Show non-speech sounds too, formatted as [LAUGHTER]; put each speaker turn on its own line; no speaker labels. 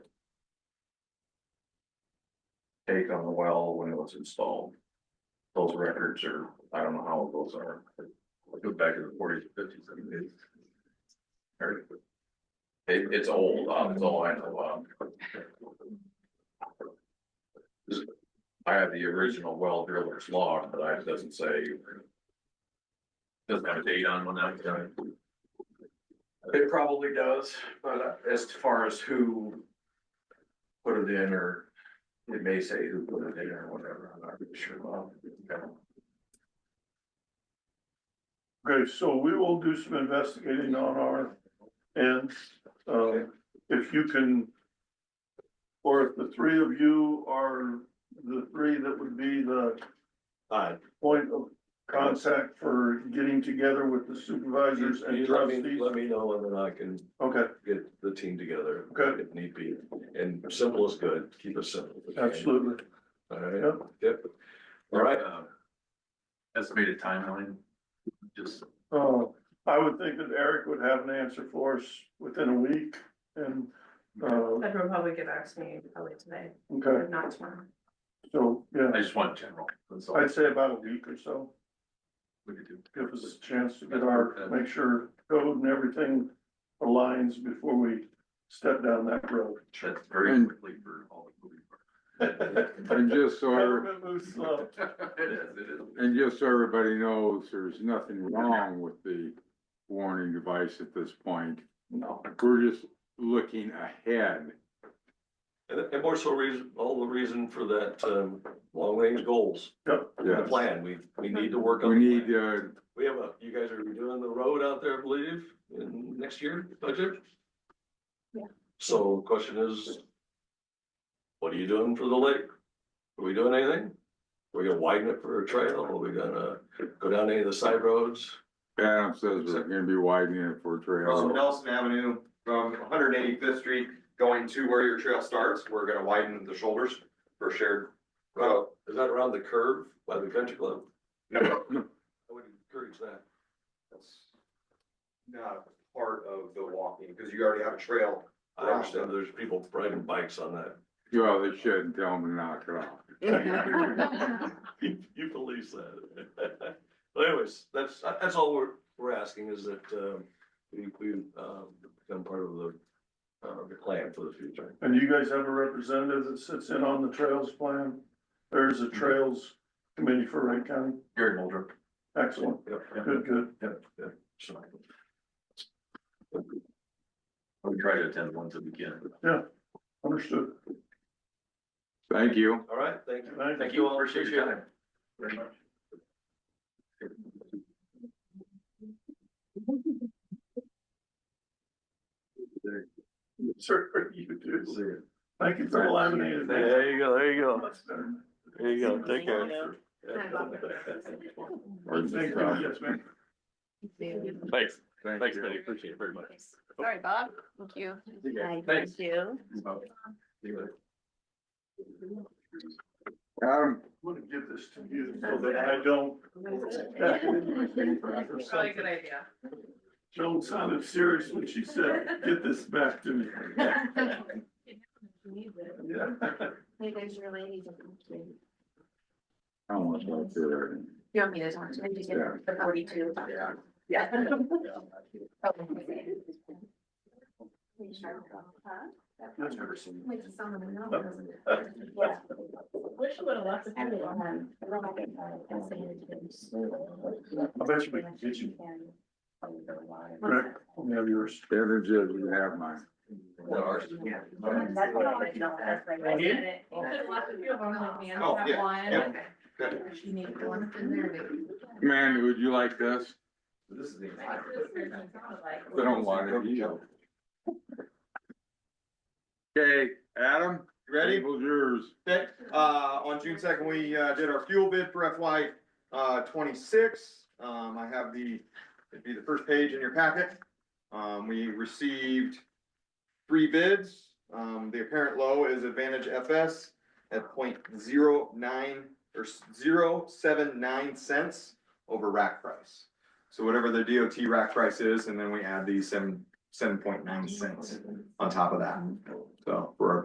take on the well when it was installed. Those records are, I don't know how old those are, but it goes back to the forties, fifties, I mean, it's. or- It, it's old, uh, that's all I know, um. I have the original well driller's log, but I, it doesn't say. Doesn't have a date on when that was done. It probably does, but as far as who. Put it in or it may say who put it in or whatever, I'm not really sure about.
Okay, so we will do some investigating on our end, uh, if you can. Or if the three of you are the three that would be the
Aye.
point of contact for getting together with the supervisors and
You let me,
trustees.
let me know and then I can
Okay,
get the team together.
Okay.
If need be, and simple is good, keep it simple.
absolutely,
All right,
yep,
yep. All right,
um, Estimated timeline, just.
uh, I would think that Eric would have an answer for us within a week and, uh,
Federal probably get back to me probably today,
okay,
if not tomorrow.
so, yeah,
just want general, that's
I'd say about a week or so.
we could do.
give us a chance to get our, make sure code and everything aligns before we step down that road.
[LAUGHS]
That's
And-
quickly for all the moving
And just so, every-
Government moves slow.
parts. [LAUGHS] It is, it is.
and just so everybody knows, there's nothing wrong with the warning device at this point.
No,
We're just looking ahead.
and, and more so reason, all the reason for that, um, long range goals, the
Yes,
plan, we, we need to work on.
we
the
need,
plan.
uh,
We have a, you guys are doing the road out there, I believe, in next year budget?
Yeah.
So question is, what are you doing for the lake? Are we doing anything? Are we gonna widen it for a trail? Are we gonna go down any of the side roads?
Adam says we're gonna be widening it for
From
trail.
Nelson Avenue, from one hundred eighty fifth Street, going to where your trail starts, we're gonna widen the shoulders for shared.
Well, is that around the curve by the country club?
No,
I would encourage that.
that's Not part of the walking, because you already have a trail.
I understand there's people riding bikes on that.
Well, they shouldn't tell them to knock it off.
You you police that. [LAUGHS] But anyways, that's, that's all we're, we're asking is that, um, we, we, um, become part of the, uh, the plan for the future.
and you guys have a representative that sits in on the trails plan? There's
Mm-hmm.
a trails committee for Wright County,
Gary Mulder.
excellent,
Yep, yep,
good, good.
yep, yep. So,
We try to attend ones if we can.
Understood.
Thank you.
All right, thank you.
Thank
you all.
Appreciate your time. Very much.
Sir, you do. Thank you for eliminating that.
you go, there you go, there you
go. Take care.
Thank you, yes, ma'am.
Thanks,
Thank
thanks,
you.
Betty, appreciate it very much.
Sorry, Bob. Thank you. Hi,
Thanks.
thank you.
I'm
Adam,
gonna give this to you so that I don't.
Probably
[LAUGHS]
a good idea.
Joan sounded serious when she said, get this back [LAUGHS] to me. Yeah.
You guys are ladies. Do
I don't want to talk to her.
you want me to talk to you? Just get the forty-two?
Yeah.
Yeah.
That's
Never seen.
Wish you would have left.
I bet you we can get you. Rick, let me have yours.
Adam says you have mine.
Oh, yeah, yeah.
Man, would you like this?
This is the.
I don't want it. either. Okay, Adam,
You Ready?
table's yours.
Okay, uh, on June second, we, uh, did our fuel bid for FY, uh, twenty-six. Um, I have the, it'd be the first page in your packet. Um, we received three bids. Um, the apparent low is Advantage FS at point zero nine, or zero seven nine cents over rack price. So whatever the DOT rack price is, and then we add the seven, seven point nine cents on top of that. So for our